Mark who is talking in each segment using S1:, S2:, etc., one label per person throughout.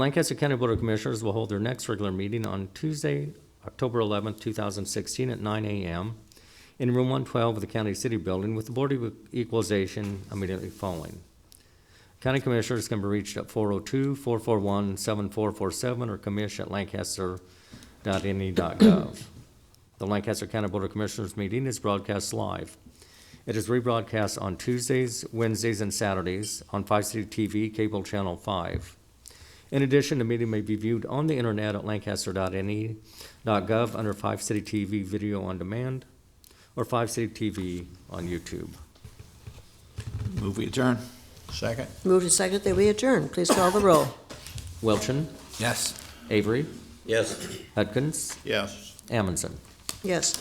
S1: Lancaster County Board of Commissioners will hold their next regular meeting on Tuesday, October 11, 2016, at 9 a.m. in Room 112 of the County City Building with the Board of Equalization immediately following. County Commissioners can be reached at 402-441-7447 or commish@lancaster.ne.gov. E The Lancaster County Board of Commissioners meeting is broadcast live. It is rebroadcast on Tuesdays, Wednesdays, and Saturdays on 5 City TV, Cable Channel 5. In addition, the meeting may be viewed on the internet at lancaster.ne.gov E, under Five City TV Video on Demand or Five City TV on YouTube.
S2: Move we adjourn. Second?
S3: Moved and seconded that we adjourn. Please call the roll.
S1: Wilchin,
S2: Yes.
S1: Avery,
S4: Yes.
S1: Hudkins,
S2: Yes.
S1: Amundson.
S3: Yes.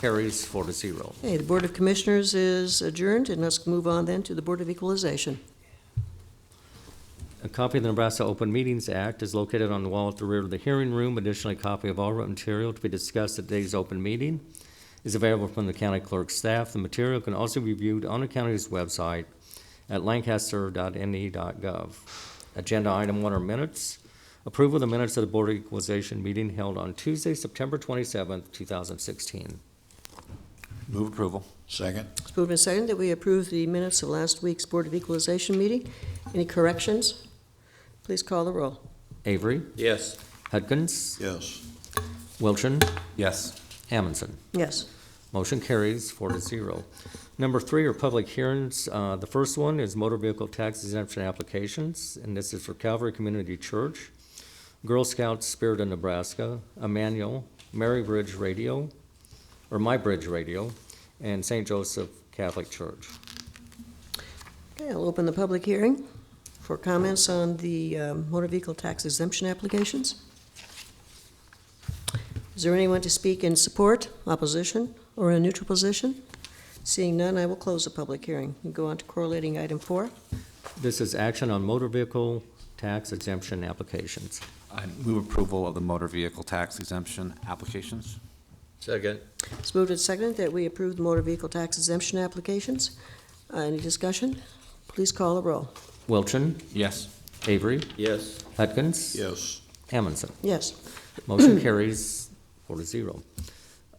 S1: Carries four to zero.
S3: Okay, the Board of Commissioners is adjourned, and let's move on then to the Board of Equalization.
S1: A copy of the Nebraska Open Meetings Act is located on the wall at the rear of the hearing room. Additionally, a copy of all written material to be discussed at today's open meeting is available from the county clerk's staff. The material can also be viewed on the county's website at lancaster.ne.gov. E Agenda item one are minutes. Approval of the minutes of the Board of Equalization meeting held on Tuesday, September twenty-seventh, two thousand sixteen.
S2: Move approval. Second?
S3: It's moved and seconded that we approve the minutes of last week's Board of Equalization meeting. Any corrections? Please call the roll.
S1: Avery,
S4: Yes.
S1: Hudkins,
S2: Yes.
S1: Wilchin,
S2: Yes.
S1: Amundson.
S3: Yes.
S1: Motion carries four to zero. Number three are public hearings. Uh, The first one is motor vehicle tax exemption applications, and this is for Calvary Community Church, Girl Scouts Spirit of Nebraska, Emmanuel, Mary Bridge Radio, or My Bridge Radio, and St. Joseph Catholic Church.
S3: Okay, I'll open the public hearing for comments on the um, motor vehicle tax exemption applications. Is there anyone to speak in support, opposition, or a neutral position? Seeing none, I will close the public hearing and go on to correlating item four.
S1: This is action on motor vehicle tax exemption applications.
S5: I move approval of the motor vehicle tax exemption applications.
S4: Second.
S3: It's moved and seconded that we approve the motor vehicle tax exemption applications. Uh, Any discussion? Please call the roll.
S1: Wilchin,
S5: Yes.
S1: Avery,
S4: Yes.
S1: Hudkins.
S2: Yes.
S1: Amundson.
S3: Yes.
S1: Motion carries four to zero.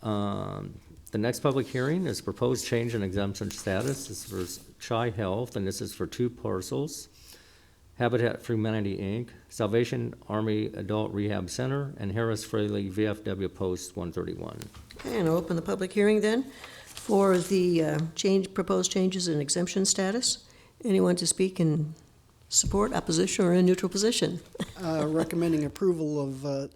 S1: Um, The next public hearing is proposed change in exemption status. This is for Chi Health, and this is for two parcels. Habitat for Humanity, Inc., Salvation Army Adult Rehab Center, and Harris Fraley VFW Post 131.
S3: Okay, and I'll open the public hearing then for the uh, change, proposed changes in exemption status. Anyone to speak in support, opposition, or in neutral position?
S6: uh, recommending approval of uh,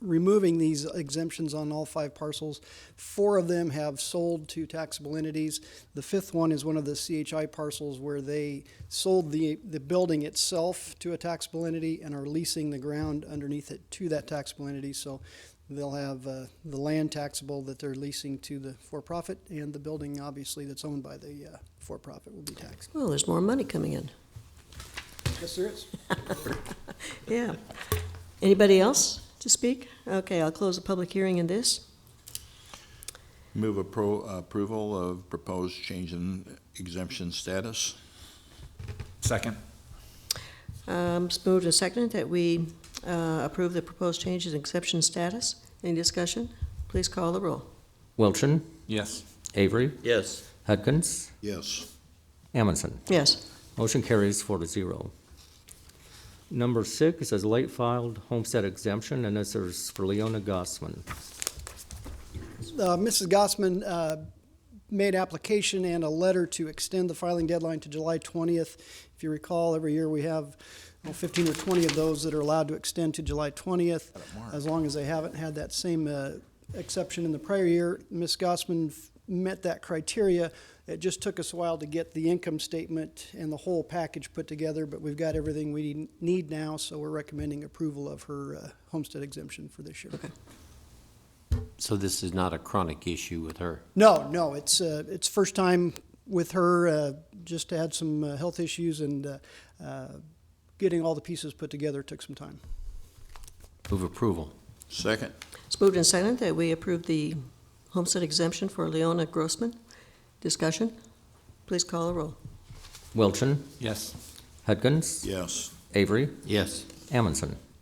S6: removing these exemptions on all five parcels. Four of them have sold to taxable entities. The fifth one is one of the CHI parcels where they sold the, the building itself to a taxable entity and are leasing the ground underneath it to that taxable entity. So they'll have uh, the land taxable that they're leasing to the for-profit and the building, obviously, that's owned by the uh, for-profit will be taxed.
S3: Well, there's more money coming in.
S6: Yes, there is.
S3: Yeah. Anybody else to speak? Okay, I'll close the public hearing in this.
S2: Move appro- approval of proposed change in exemption status.
S5: Second.
S3: Um, It's moved and seconded that we uh, approve the proposed changes in exemption status. Any discussion? Please call the roll.
S1: Wilchin,
S5: Yes.
S1: Avery,
S4: Yes.
S1: Hudkins,
S2: Yes.
S1: Amundson.
S3: Yes.
S1: Motion carries four to zero. Number six is late filed homestead exemption, and this is for Leona Gossman.
S6: Uh, Mrs. Gossman uh, made application and a letter to extend the filing deadline to July 20th. If you recall, every year we have well, 15 or 20 of those that are allowed to extend to July 20th, as long as they haven't had that same uh, exception in the prior year. Ms. Gossman f- met that criteria. It just took us a while to get the income statement and the whole package put together, but we've got everything we need now, so we're recommending approval of her uh, homestead exemption for this year.
S7: So this is not a chronic issue with her?
S6: No, no, it's uh, it's first time with her. Uh, just had some uh, health issues and uh, uh, getting all the pieces put together took some time.
S7: Move approval.
S2: Second?
S3: It's moved and seconded that we approve the homestead exemption for Leona Grossman. Discussion? Please call the roll.
S1: Wilchin,
S5: Yes.
S1: Hudkins,
S2: Yes.
S1: Avery,
S7: Yes.
S1: Amundson.